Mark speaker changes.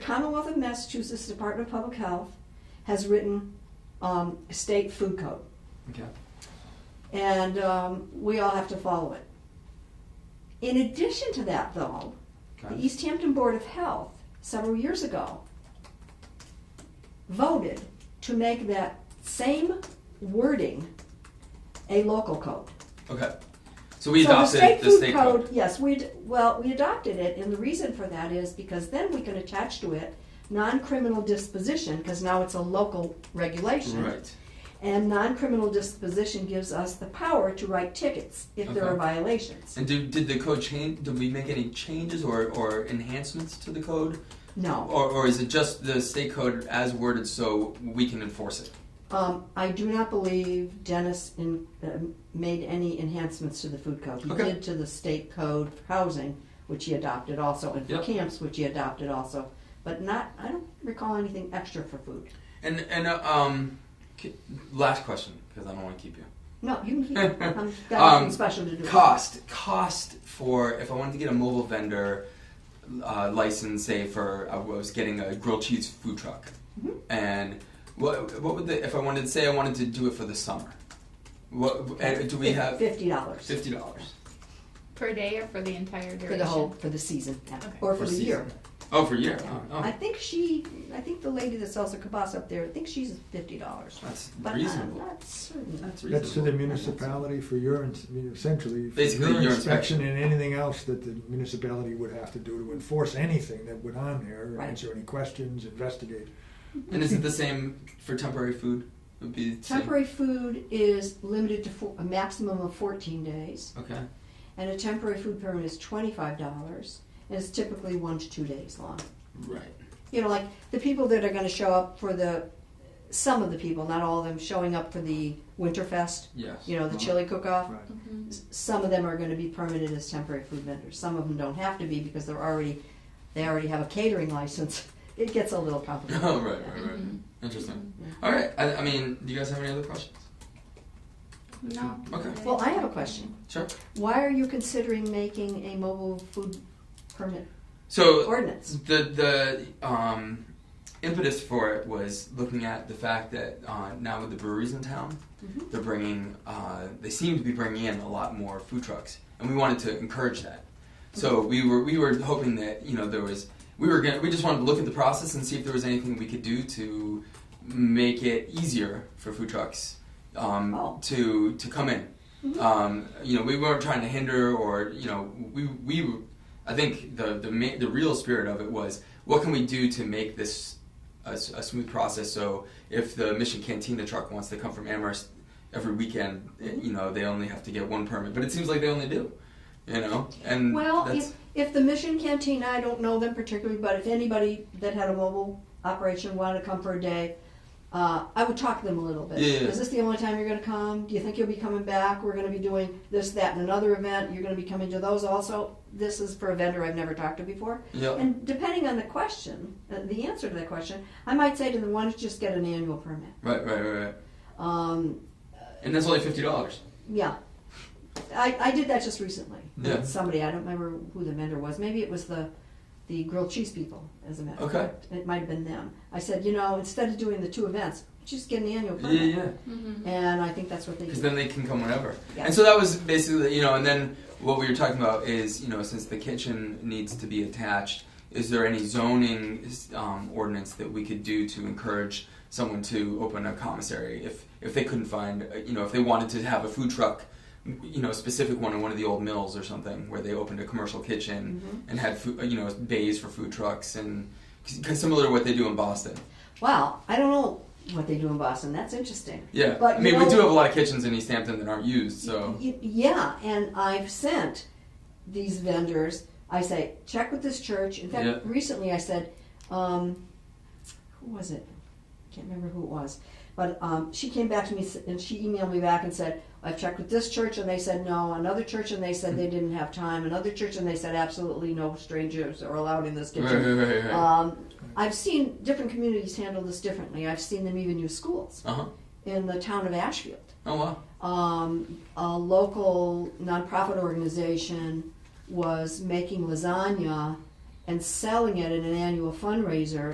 Speaker 1: Commonwealth of Massachusetts Department of Public Health has written um, state food code,
Speaker 2: Okay.
Speaker 1: and um, we all have to follow it. In addition to that, though, the e-
Speaker 2: Okay.
Speaker 1: East Hampton Board of Health several years ago voted to make that same wording a local code.
Speaker 2: Okay. So we
Speaker 1: So the
Speaker 2: adopted
Speaker 1: state
Speaker 2: the
Speaker 1: food
Speaker 2: state code.
Speaker 1: Yes, we, ad- well, we adopted it, and the reason for that is because then we can attach to it non-criminal disposition, because now it's a local regulation.
Speaker 2: Right.
Speaker 1: And non-criminal disposition gives us the power to write tickets if there
Speaker 2: Okay.
Speaker 1: are violations.
Speaker 2: And did, did the code change? Did we make any changes or, or enhancements to the code?
Speaker 1: No,
Speaker 2: Or, or is it just the state code as worded so we can enforce it?
Speaker 1: um, I do not believe Dennis in, um, made any enhancements to the food code. He
Speaker 2: Okay.
Speaker 1: did to the state code for housing, which he adopted also, and for
Speaker 2: Yep.
Speaker 1: camps, which he adopted also, but not, I don't recall anything extra for food.
Speaker 2: And, and uh, um, k- last question, because I don't want to keep you.
Speaker 1: No, you can keep it. I'm got
Speaker 2: Um,
Speaker 1: nothing special to do.
Speaker 2: Cost. Cost for if I wanted to get a mobile vendor uh, license, say for I was getting a grilled cheese food truck,
Speaker 1: Mhm.
Speaker 2: and what what would the if I wanted say I wanted to do it for the summer? What and do we have?
Speaker 1: fifty dollars
Speaker 2: Fifty dollars
Speaker 3: Per day or for the entire duration?
Speaker 1: for the whole for the season yeah.
Speaker 3: Okay.
Speaker 1: or for, the
Speaker 2: season.
Speaker 1: year?
Speaker 2: Oh, for a year. Oh, oh.
Speaker 1: I think she, I think the lady that sells the kibas up there, I think she's fifty dollars.
Speaker 2: that's
Speaker 1: But
Speaker 2: reasonable.
Speaker 1: I'm not certain.
Speaker 2: that's
Speaker 4: That's to the
Speaker 2: reasonable.
Speaker 4: municipality for your, ins- I mean, essentially, for
Speaker 2: Basically,
Speaker 4: your
Speaker 2: your
Speaker 4: inspection and anything else that the municipality would have to do to enforce anything that went on there,
Speaker 1: Right.
Speaker 4: answer any questions, investigate.
Speaker 1: uh,
Speaker 2: And is it the same for temporary food? It would be the same.
Speaker 1: Temporary food is limited to four, a maximum of fourteen days,
Speaker 2: Okay.
Speaker 1: and a temporary food permit is twenty-five dollars, and it's typically one to two days long.
Speaker 2: Right.
Speaker 1: you know, like the people that are going to show up for the, some of the people, not all of them, showing up for the Winterfest,
Speaker 2: Yes. Uh-huh.
Speaker 1: you know, the chili cook-off.
Speaker 4: Right.
Speaker 3: Mhm.
Speaker 1: S- Some of them are going to be permitted as temporary food vendors. Some of them don't have to be because they're already, they already have a catering license. It gets a little complicated.
Speaker 2: Oh, right, right, right.
Speaker 1: Mm-hmm.
Speaker 3: Mhm.
Speaker 2: Interesting. All right. I, I mean, do you guys have any other questions?
Speaker 3: No.
Speaker 2: Okay.
Speaker 1: Well, I have a question.
Speaker 2: Sure.
Speaker 1: Why are you considering making a mobile food permit
Speaker 2: So
Speaker 1: ordinance?
Speaker 2: The the um, impetus for it was looking at the fact that uh, now with the breweries in town,
Speaker 1: Mhm.
Speaker 2: they're bringing uh, they seem to be bringing in a lot more food trucks, and we wanted to encourage that. So we were we were hoping that you know there was we were gonna, we just wanted to look at the process and see if there was anything we could do to make it easier for food trucks um,
Speaker 1: Oh.
Speaker 2: to to come in.
Speaker 1: Mhm.
Speaker 2: Um, you know, we weren't trying to hinder or you know we we I think the the ma- the real spirit of it was what can we do to make this a, s- a smooth process. So if the Mission Cantina truck wants to come from Amherst every weekend, eh,
Speaker 1: Mm-hmm.
Speaker 2: you know they only have to get one permit, but it seems like they only do. You know, and
Speaker 1: Well,
Speaker 2: that's,
Speaker 1: if, if the Mission Cantina, I don't know them particularly, but if anybody that had a mobile operation wanted to come for a day, uh, I would talk to them a little bit.
Speaker 2: Yeah, yeah.
Speaker 1: Is this the only time you're going to come? Do you think you'll be coming back? We're going to be doing this, that, and another event. You're going to be coming to those also. This is for a vendor I've never talked to before.
Speaker 2: yeah.
Speaker 1: And depending on the question, uh, the answer to that question, I might say to them, why don't you just get an annual permit?
Speaker 2: Right, right, right, right.
Speaker 1: Um,
Speaker 2: And that's only fifty dollars.
Speaker 1: yeah. I, I did that just recently.
Speaker 2: Yeah.
Speaker 1: somebody. I don't remember who the vendor was. Maybe it was the the grilled cheese people, as a matter of
Speaker 2: Okay.
Speaker 1: fact. It might have been them. I said, you know, instead of doing the two events, just get an annual
Speaker 2: Yeah,
Speaker 1: permit.
Speaker 2: yeah.
Speaker 3: Mhm.
Speaker 1: And I think that's what they
Speaker 2: Because
Speaker 1: did.
Speaker 2: then they can come whenever.
Speaker 1: Yeah.
Speaker 2: And so that was basically, you know, and then what we were talking about is, you know, since the kitchen needs to be attached, is there any zoning um, ordinance that we could do to encourage someone to open a commissary if if they couldn't find, uh, you know, if they wanted to have a food truck, you know, a specific one in one of the old mills or something where they opened a commercial kitchen
Speaker 1: Mhm.
Speaker 2: and had food, you know, bays for food trucks and cause similar to what they do in Boston.
Speaker 1: Wow, I don't know what they do in Boston. That's interesting.
Speaker 2: Yeah,
Speaker 1: But
Speaker 2: I
Speaker 1: you
Speaker 2: mean, we
Speaker 1: know-
Speaker 2: do have a lot of kitchens in East Hampton that aren't used, so.
Speaker 1: Y- yeah, and I've sent these vendors. I say check with this church. In fact,
Speaker 2: Yeah.
Speaker 1: recently I said, um, who was it? Can't remember who it was, but um, she came back to me s- and she emailed me back and said I've checked with this church and they said no. Another church and they said they didn't have time. Another church and they said absolutely no strangers are allowed in this
Speaker 2: Right,
Speaker 1: kitchen.
Speaker 2: right, right, right.
Speaker 1: Um, I've seen different communities handle this differently. I've seen them even use schools
Speaker 2: Uh huh.
Speaker 1: in the town of Ashfield
Speaker 2: Oh wow.
Speaker 1: um, a local nonprofit organization was making lasagna and selling it at an annual fundraiser